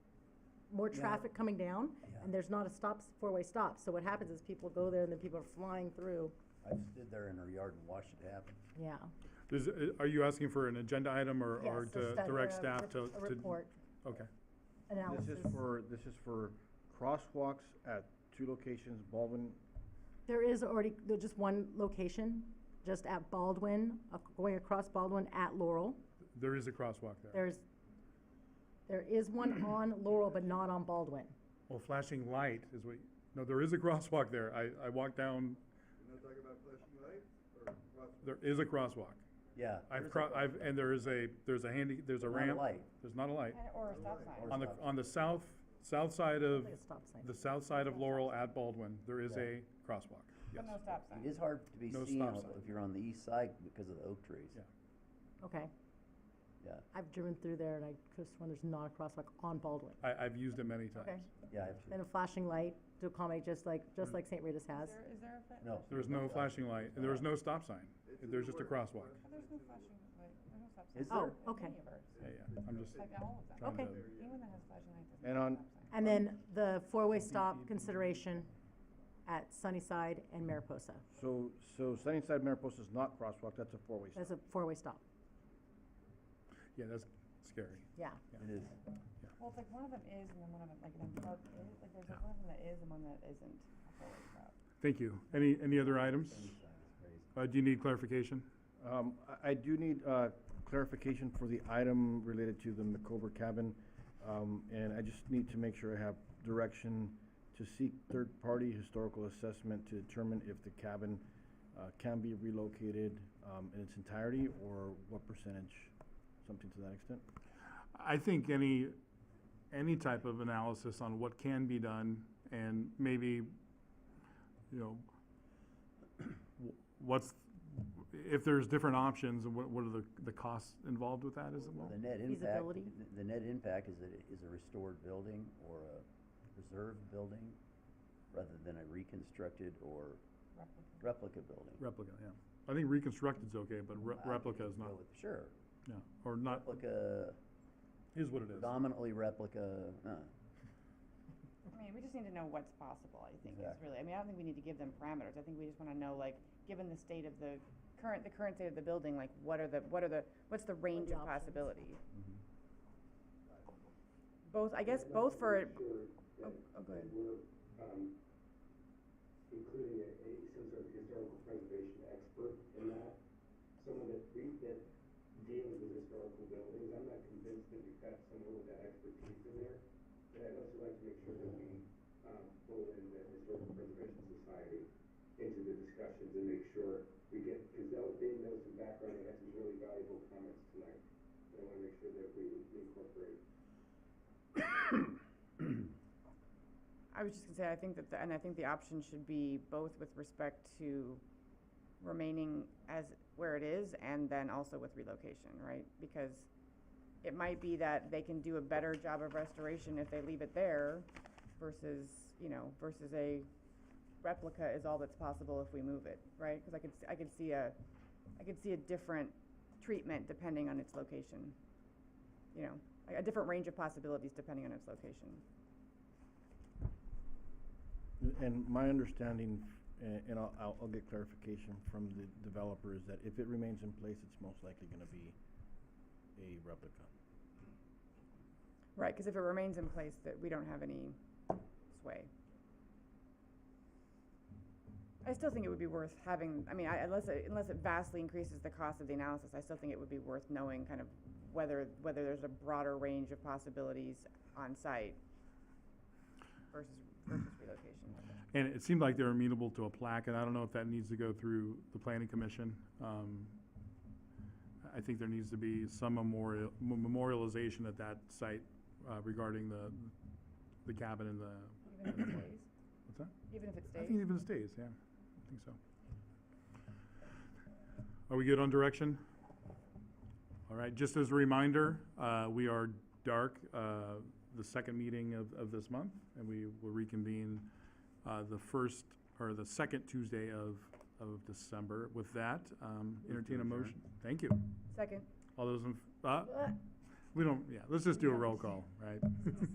more Yeah. traffic coming down, Yeah. and there's not a stop, four-way stop. So what happens is people go there and then people are flying through. I stood there in her yard and watched it happen. Yeah. Is, are you asking for an agenda item or, or to direct staff to? A to- report, Okay, analysis. This is for, this is for crosswalks at two locations, Baldwin, There is already, there's just one location, just at Baldwin, uh, going across Baldwin at Laurel. there is a crosswalk there. There's, there is one on Laurel, but not on Baldwin. Well, flashing light is what, no, there is a crosswalk there. I, I walked down, You're not talking about flashing light or crosswalk? there is a crosswalk. Yeah. I've, there's a- cro- I've, and there is a, there's a handy, there's a There's not a ramp. light. There's not a light. Or a stop sign. Or On the, stop. on the south, south side of, Like a stop sign. the south side of Laurel at Baldwin, there is Yeah. a crosswalk, yes. But no stop sign. It is hard to be No seen stop if sign. if you're on the east side because of the oak trees. Yeah. Okay. Yeah, I've driven through there and I just, when there's not a crosswalk on Baldwin. I, I've used it many times. yeah, I have to- Then a flashing light to accommodate, just like, just like St. Rita's Is has. there, is there a flash? no. There's no flashing light, and there is no stop sign. There's just a crosswalk. There's no flashing light, there's no stop sign. Is Oh, there? At okay. any of ours. Yeah, yeah, I'm just Like at all of them. trying Okay. to, Anyone that has flashing light doesn't And have on- a stop sign. And then the four-way stop consideration at Sunnyside and Mariposa. so, so Sunnyside Mariposa is not crosswalk, that's a four-way stop. That's a four-way stop, yeah, that's scary. yeah. It is. Well, it's like one of them is and then one of them, like, in a park is, like, there's like one of them that is and one that isn't a four-way stop. Thank you. Any, any other items? Uh, do you need clarification? Um, I, I do need, uh, clarification for the item related to the McCover cabin. Um, and I just need to make sure I have direction to seek third-party historical assessment to determine if the cabin, uh, can be relocated, um, in its entirety or what percentage, something to that extent. I think any, any type of analysis on what can be done and maybe, you know, wh- what's, if there's different options, what, what are the, the costs involved with that as well? The net impact, Feasibility? the- the net impact is that it is a restored building or a preserved building rather than a reconstructed or Replica. replica building. Replica, yeah. I think reconstructed's okay, but re- I replica would is not, go with- Sure, yeah, or not, replica, is what it is. predominantly replica, uh, I mean, we just need to know what's possible, I think, is Exactly. really, I mean, I don't think we need to give them parameters, I think we just wanna know, like, given the state of the current, the current state of the building, like, what are the, what are the, what's the range the of options? possibility? Mm-hmm. Both, I guess, both for, oh, oh, go ahead. We're, um, including a, a, some sort of historical preservation expert in that. Someone that re, that deals with historical buildings, I'm not convinced that we've got someone with that expertise in there. But I'd also like to make sure that we, um, pull in the Historical Preservation Society into the discussions and make sure we get, because that was, they know some background, they had some really valuable comments tonight. And I wanna make sure that we incorporate I was just gonna say, I think that, the- and I think the option should be both with respect to remaining as where it is and then also with relocation, right? Because it might be that they can do a better job of restoration if they leave it there versus, you know, versus a replica is all that's possible if we move it, right? Cause I could, s- I could see a, I could see a different treatment depending on its location. You know, a- a different range of possibilities depending on its location. And my understanding, a- and I'll- I'll, I'll get clarification from the developer, is that if it remains in place, it's most likely gonna be a replica. Right, because if it remains in place, that we don't have any sway. I still think it would be worth having, I mean, I- unless, it- unless it vastly increases the cost of the analysis, I still think it would be worth knowing kind of whether, whether there's a broader range of possibilities on site versus, versus relocation. And it seemed like they're amenable to a plaque, and I don't know if that needs to go through the planning commission. Um, I think there needs to be some memorial, memorialization at that site uh, regarding the, the cabin and the, Even if it stays, what's that? even if it I stays. think it even stays, yeah, I think so. Are we good on direction? All right, just as a reminder, uh, we are dark, uh, the second meeting of, of this month, and we will reconvene uh, the first, or the second Tuesday of, of December. With that, um, to entertain a adjourn. motion. Thank you. Second. All those in, f- uh, we don't, yeah, let's just do a roll call, right?